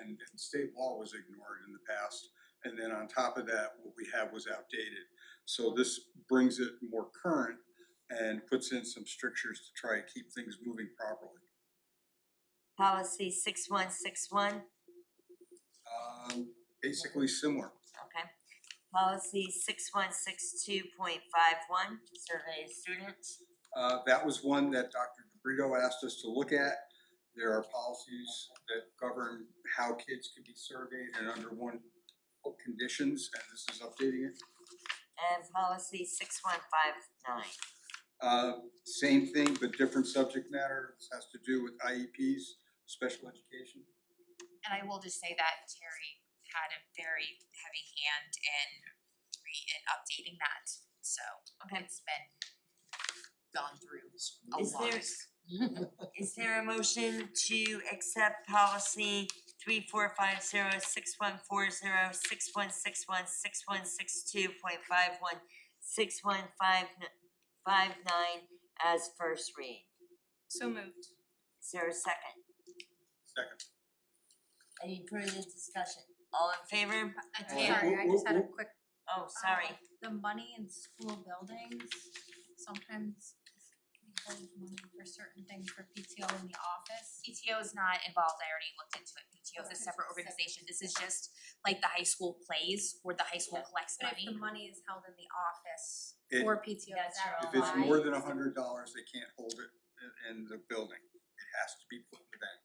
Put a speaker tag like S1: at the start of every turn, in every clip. S1: and, and state law was ignored in the past. And then on top of that, what we have was outdated. So this brings it more current and puts in some strictures to try and keep things moving properly.
S2: Policy six one six one,
S1: Um, basically similar.
S2: okay. Policy six one six two point five one, survey of students.
S1: Uh, that was one that Dr. DeBrito asked us to look at. There are policies that govern how kids can be surveyed and under one what conditions, and this is updating it.
S2: And policy six one five nine,
S1: Uh, same thing, but different subject matter. This has to do with IEPs, special education.
S3: And I will just say that Terry had a very heavy hand in re- in updating that, so
S2: okay.
S3: it's been gone through a
S2: Is
S3: lot.
S2: there- Is there a motion to accept policy three four five zero, six one four zero, six one six one, six one six two point five one, six one five n- five nine as first read?
S3: So moved.
S2: Is there a second?
S1: Second.
S2: Any further discussion? All in favor?
S3: Uh,
S1: Hey,
S4: Sorry, I just had a
S1: whoop,
S4: quick,
S2: Oh, sorry.
S4: um, the money in school buildings, sometimes we hold money for certain things for PTO in the office.
S3: PTO is not involved, I already looked into it, PTO is a
S4: Okay.
S3: separate organization, this is just like the high school plays where the high school collects
S4: But
S3: money.
S4: if the money is held in the office
S1: It-
S4: for PTO,
S3: That's
S4: is that
S3: right.
S1: If it's
S4: alright?
S1: more than a hundred dollars, they can't hold it in, in the building. It has to be put in the bank.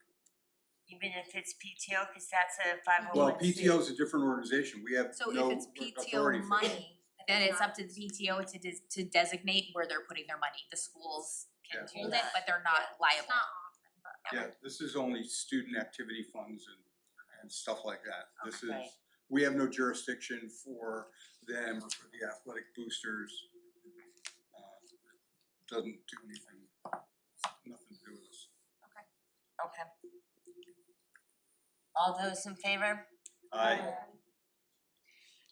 S2: Even if it's PTO, cause that's a five oh
S1: Well,
S2: one C.
S1: PTO is a different organization. We have
S4: So
S1: no
S4: if it's
S1: authority
S4: PTO
S1: for that.
S4: money,
S3: Then it's
S4: not-
S3: up to the PTO to des- to designate where they're putting their money, the schools can
S1: Yeah.
S3: hold it, but they're not liable.
S4: It's not
S1: Yeah, this is only student activity funds and and stuff like that. This is,
S2: Right.
S1: we have no jurisdiction for them or for the athletic boosters. Uh, Doesn't do anything, nothing to do with us.
S2: Okay. All those in favor?
S1: I,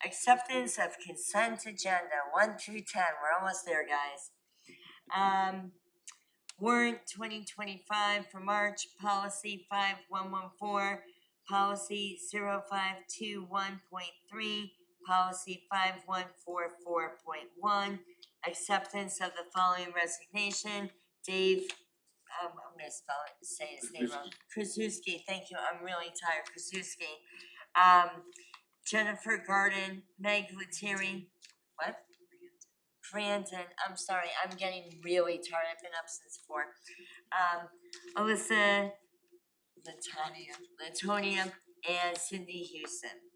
S2: Acceptance of consent agenda, one through ten, we're almost there, guys. Um, warrant twenty twenty-five for March, policy five one one four, policy zero five two one point three, policy five one four four point one, acceptance of the following resignation, Dave, um, I'm gonna spell it, say his name wrong. Krasuski, thank you, I'm really tired, Krasuski. Um, Jennifer Garden, Meg Lettieri, what? Brandon, I'm sorry, I'm getting really tired, I've been up since four. Um, Alyssa, Latonia, Latonia, and Cindy Houston.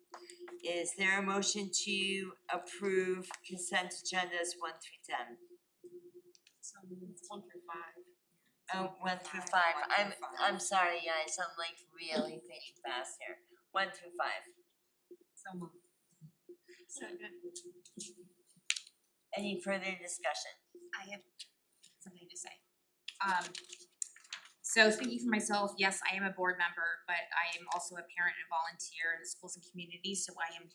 S2: Is there a motion to approve consent agendas one through ten?
S4: one through five.
S2: Oh, one through
S4: Five,
S2: five,
S4: one
S2: I'm,
S4: through five.
S2: I'm sorry, guys, I'm like really thinking fast here, one through five.
S4: So moved.
S2: Any further discussion?
S3: I have something to say.
S5: Um so speaking for myself, yes, I am a board member, but I am also a parent and volunteer in the schools and communities, so I am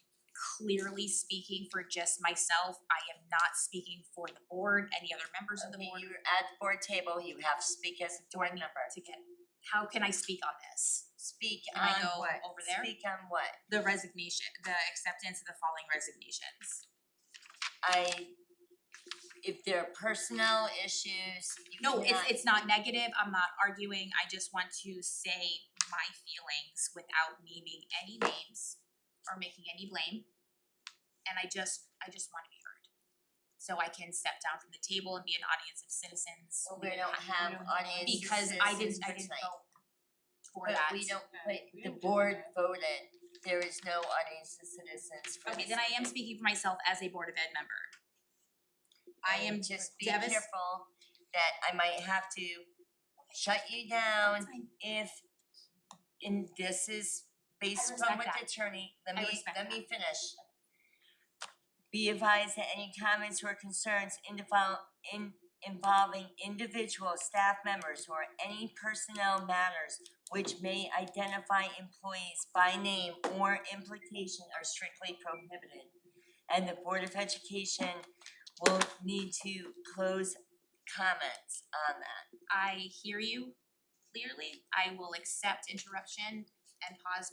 S5: clearly speaking for just myself. I am not speaking for the board, any other members of the
S2: Okay,
S5: board.
S2: you're at the board table, you have to speak as a board member.
S5: To get, how can I speak on this?
S2: Speak
S5: Can
S2: on
S5: I go
S2: what?
S5: over there?
S2: Speak on what?
S5: The resignation, the acceptance of the following resignations.
S2: I, if there are personnel issues, you
S5: No, it's
S2: cannot-
S5: it's not negative, I'm not arguing, I just want to say my feelings without naming any names or making any blame. And I just, I just wanna be heard. So I can step down from the table and be an audience of citizens.
S2: Well, we don't have
S5: we don't-
S2: audience
S5: Because I
S2: citizens
S5: didn't, I
S2: for
S5: didn't
S2: tonight.
S5: vote for
S2: But
S5: that.
S2: we don't, but
S4: we
S2: the
S4: don't do
S2: board
S4: that.
S2: voted, there is no audience of citizens for
S5: Okay,
S2: this
S5: then I am
S2: meeting.
S5: speaking for myself as a Board of Ed member. I am
S2: And just be
S5: devas-
S2: careful that I might have to shut you down
S5: fine.
S2: if, and this is based
S5: respect
S2: upon what the
S5: that.
S2: attorney, let
S5: I
S2: me,
S5: respect
S2: let
S5: that.
S2: me finish. Be advised that any comments or concerns in the fol- in involving individual staff members or any personnel matters which may identify employees by name or implication are strictly prohibited. And the Board of Education will need to close comments on that.
S5: I hear you clearly, I will accept interruption and pause